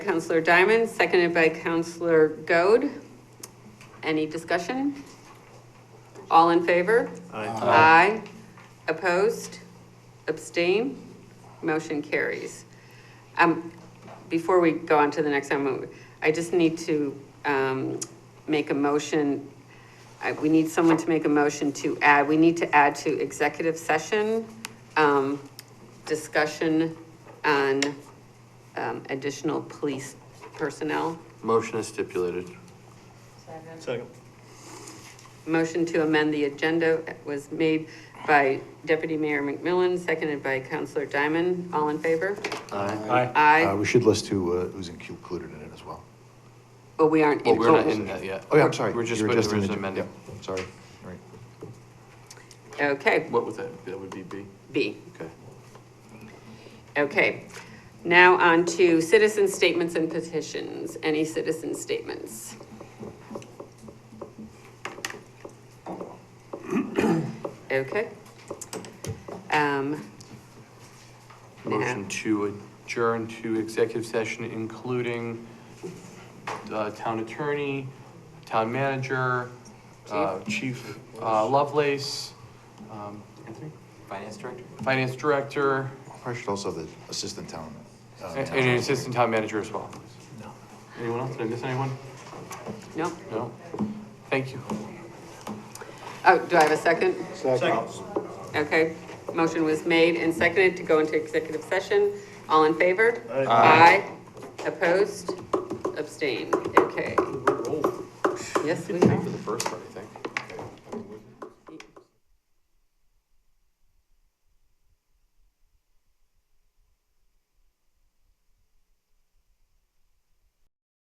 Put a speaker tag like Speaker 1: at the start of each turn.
Speaker 1: Counselor Diamond, seconded by Counselor Goad. Any discussion? All in favor? Aye. Opposed? Abstain? Motion carries. Um, before we go on to the next item, I just need to, um, make a motion. I, we need someone to make a motion to add, we need to add to executive session, um, discussion on, um, additional police personnel.
Speaker 2: Motion is stipulated.
Speaker 3: Second.
Speaker 1: Motion to amend the agenda was made by Deputy Mayor McMillan, seconded by Counselor Diamond. All in favor?
Speaker 2: Aye.
Speaker 3: Aye.
Speaker 4: Uh,
Speaker 1: Aye.
Speaker 4: we should list who, uh, who's included in it as well.
Speaker 1: But we aren't
Speaker 2: Well,
Speaker 1: in.
Speaker 2: we're not in that yet.
Speaker 4: Oh, yeah, I'm sorry.
Speaker 2: We're just,
Speaker 4: You
Speaker 2: we're just
Speaker 4: in the-
Speaker 2: amending.
Speaker 4: yeah, Sorry, right.
Speaker 1: Okay,
Speaker 2: What would that, that would be B?
Speaker 1: B.
Speaker 2: Okay.
Speaker 1: Okay. Now on to citizen statements and petitions. Any citizen statements? Okay. Um,
Speaker 2: Motion to adjourn to executive session, including uh, town attorney, town manager, uh, Chief uh, Lovelace, um, Anthony,
Speaker 5: Finance director?
Speaker 2: Finance Director,
Speaker 4: I should also have the assistant town. uh,
Speaker 2: and
Speaker 4: town
Speaker 2: and an
Speaker 4: manager.
Speaker 2: Assistant Town Manager as well. Anyone else? Did I miss anyone?
Speaker 1: no?
Speaker 2: No? Thank you.
Speaker 1: Oh, do I have a second? Okay, motion was made and seconded to go into executive session. All in favor? Aye. Opposed? Abstained? Okay. Yes, we are.
Speaker 2: For the first part, I think.